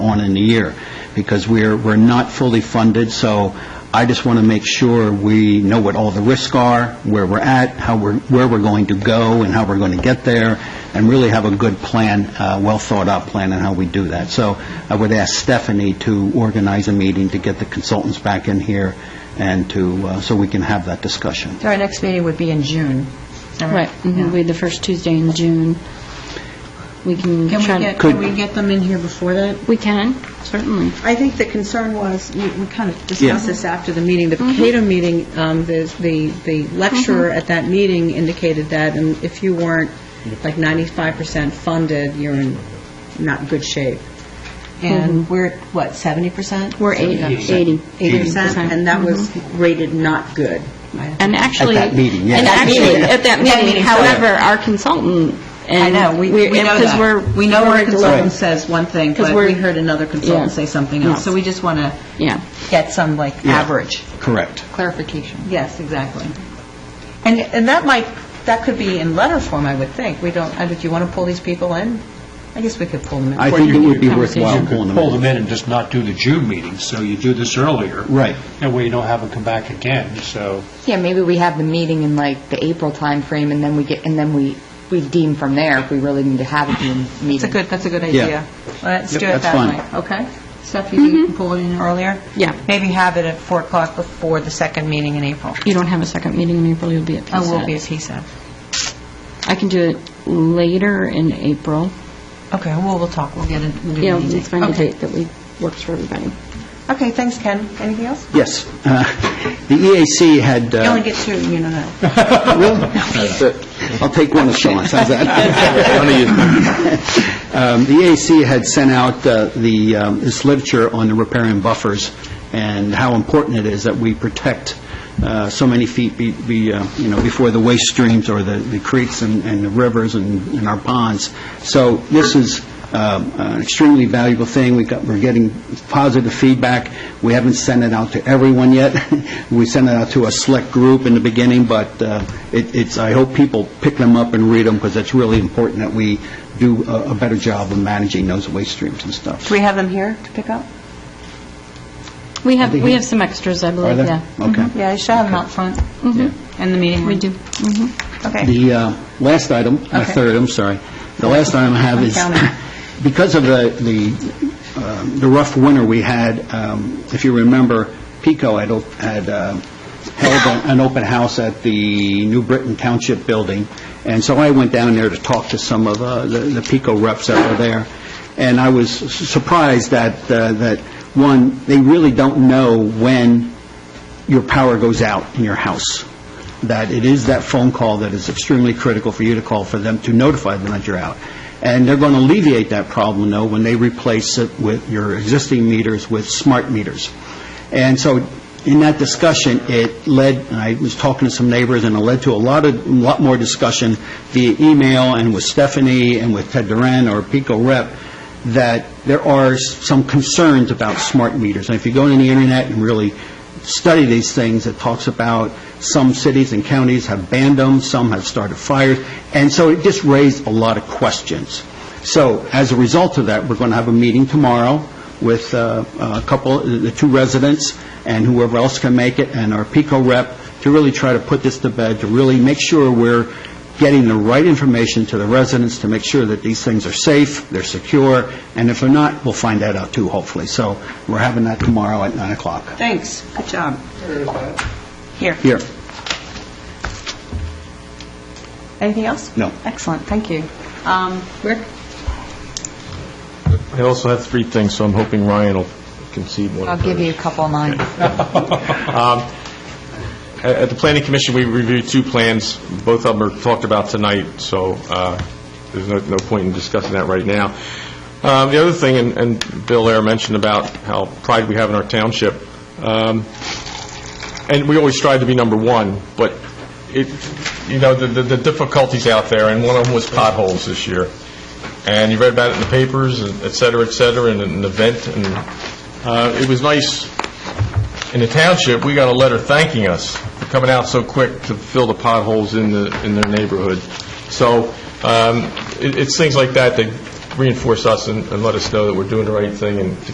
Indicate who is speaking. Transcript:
Speaker 1: on in a year, because we're, we're not fully funded, so I just want to make sure we know what all the risks are, where we're at, how we're, where we're going to go, and how we're going to get there, and really have a good plan, uh, well-thought-out plan on how we do that. So I would ask Stephanie to organize a meeting to get the consultants back in here and to, uh, so we can have that discussion.
Speaker 2: So our next meeting would be in June. All
Speaker 3: Right, Mm-hmm.
Speaker 2: Yeah.
Speaker 3: it'll be the first Tuesday in June. We can
Speaker 4: Can we
Speaker 3: try to...
Speaker 4: get, can we get them in here before that?
Speaker 3: We can, certainly.
Speaker 4: I think the concern was, we we kind of discussed this after the meeting, the
Speaker 3: Mm-hmm.
Speaker 4: Cato meeting, um, the the the lecturer at that meeting indicated that, and if you weren't like 95% funded, you're in not good shape. And we're, at, what, 70%?
Speaker 3: Mm-hmm. We're eight- 80.
Speaker 4: 80%, and that was rated not good.
Speaker 3: Mm-hmm. And actually...
Speaker 1: that meeting, yeah.
Speaker 3: And
Speaker 1: At that
Speaker 3: actually,
Speaker 1: meeting.
Speaker 3: at that
Speaker 2: At that
Speaker 3: meeting,
Speaker 2: meeting,
Speaker 3: however, our consultant
Speaker 4: I
Speaker 3: and...
Speaker 4: know, we we know
Speaker 3: Because we're...
Speaker 4: that. We know our
Speaker 3: we're-
Speaker 4: consultant says one thing,
Speaker 3: 'Cause
Speaker 4: but
Speaker 3: we're-
Speaker 4: we heard another
Speaker 3: Yeah.
Speaker 4: consultant say something
Speaker 3: Yeah.
Speaker 4: else. So we just want to
Speaker 3: Yeah.
Speaker 4: get some, like, average.
Speaker 1: Correct.
Speaker 4: Clarification. Yes, exactly. And, and that might, that could be in letter form, I would think. We don't, I do you want to pull these people in? I guess we could pull them in.
Speaker 1: I think it would be worthwhile
Speaker 5: You
Speaker 1: pulling
Speaker 5: could
Speaker 1: them.
Speaker 5: pull them in and just not do the June meeting, so you do this earlier.
Speaker 1: Right.
Speaker 5: That way you don't have them come back again, so.
Speaker 6: Yeah, maybe we have the meeting in like the April timeframe, and then we get, and then we, we deem from there if we really need to have a June meeting.
Speaker 4: That's a good, that's a good
Speaker 1: Yeah.
Speaker 4: idea. Let's
Speaker 1: Yep,
Speaker 4: do it
Speaker 1: that's
Speaker 4: that
Speaker 1: fine.
Speaker 4: way, okay? Steph, you think you can pull it in earlier?
Speaker 3: Mm-hmm. Yeah.
Speaker 4: Maybe have it at 4 o'clock before the second meeting in April.
Speaker 3: You don't have a second meeting in April, you'll be at PSAT.
Speaker 4: I will Oh, be at PSAP.
Speaker 3: I can do it later in April.
Speaker 4: Okay, well, we'll talk, we'll get it. we'll do
Speaker 3: Yeah,
Speaker 4: the meeting.
Speaker 3: let's find a
Speaker 4: Okay.
Speaker 3: date that we- works for everybody.
Speaker 4: Okay, thanks, Ken. Anything else?
Speaker 1: Yes. Uh, The EAC had... uh,
Speaker 4: You only get two, you know that.
Speaker 1: I'll take one of Sean's, how's that? Um, The AAC had sent out uh, the, um, this literature on the riparian buffers and how important it is that we protect uh, so many feet, be- be, uh, you know, before the waste streams or the the creeks and and the rivers and and our ponds. So this is um, an extremely valuable thing. We got, we're getting positive feedback. We haven't sent it out to everyone yet. We sent it out to a select group in the beginning, but uh, it- it's, I hope people pick them up and read them, because it's really important that we do a a better job of managing those waste streams and stuff.
Speaker 4: Do we have them here to pick up?
Speaker 3: We have,
Speaker 1: think
Speaker 3: we
Speaker 1: it-
Speaker 3: have some extras, I
Speaker 1: Are
Speaker 3: believe,
Speaker 1: there?
Speaker 3: yeah.
Speaker 1: Okay. Mm-hmm.
Speaker 4: Yeah, Mm-hmm. you should have them out front in the meeting room.
Speaker 3: We do.
Speaker 4: Okay.
Speaker 1: The uh, last item, my
Speaker 4: Okay.
Speaker 1: third, item, sorry, the last item I have
Speaker 4: I'm
Speaker 1: is,
Speaker 4: counting.
Speaker 1: because of the the um, the rough winter we had, um, if you remember, PICO had op- had uh, held an- an open house at the New Britain Township Building, and so I went down there to talk to some of uh, the the PICO reps that were there, and I was surprised that, uh, that, one, they really don't know when your power goes out in your house, that it is that phone call that is extremely critical for you to call for them to notify them that you're out. And they're going to alleviate that problem, though, when they replace it with your existing meters with smart meters. And so in that discussion, it led, and I was talking to some neighbors, and it led to a lot of, a lot more discussion via email and with Stephanie and with Ted Duran or Pico Rep, that there are s- some concerns about smart meters. And if you go on the internet and really study these things, it talks about some cities and counties have banned them, some have started fires, and so it just raised a lot of questions. So as a result of that, we're going to have a meeting tomorrow with uh, a couple, the two residents and whoever else can make it, and our PICO rep, to really try to put this to bed, to really make sure we're getting the right information to the residents to make sure that these things are safe, they're secure, and if they're not, we'll find that out too, hopefully. So we're having that tomorrow at 9 o'clock.
Speaker 4: Thanks, good job. Here.
Speaker 1: Here,
Speaker 4: Anything else?
Speaker 1: No.
Speaker 4: Excellent, thank you. Um, Rick?
Speaker 7: I also have three things, so I'm hoping Ryan will concede one.
Speaker 6: I'll give you a couple of mine.
Speaker 7: At at the Planning Commission, we reviewed two plans. Both of them are talked about tonight, so uh, there's no no point in discussing that right now. Uh, The other thing, and- and Bill Air mentioned about how pride we have in our township, um, and we always strive to be number one, but it, you know, the- the the difficulties out there, and one of them was potholes this year. And you read about it in the papers, and et cetera, et cetera, and an event, and uh, it was nice in the township, we got a letter thanking us for coming out so quick to fill the potholes in the, in their neighborhood. So um, it- it's things like that that reinforce us and and let us know that we're doing the right thing and to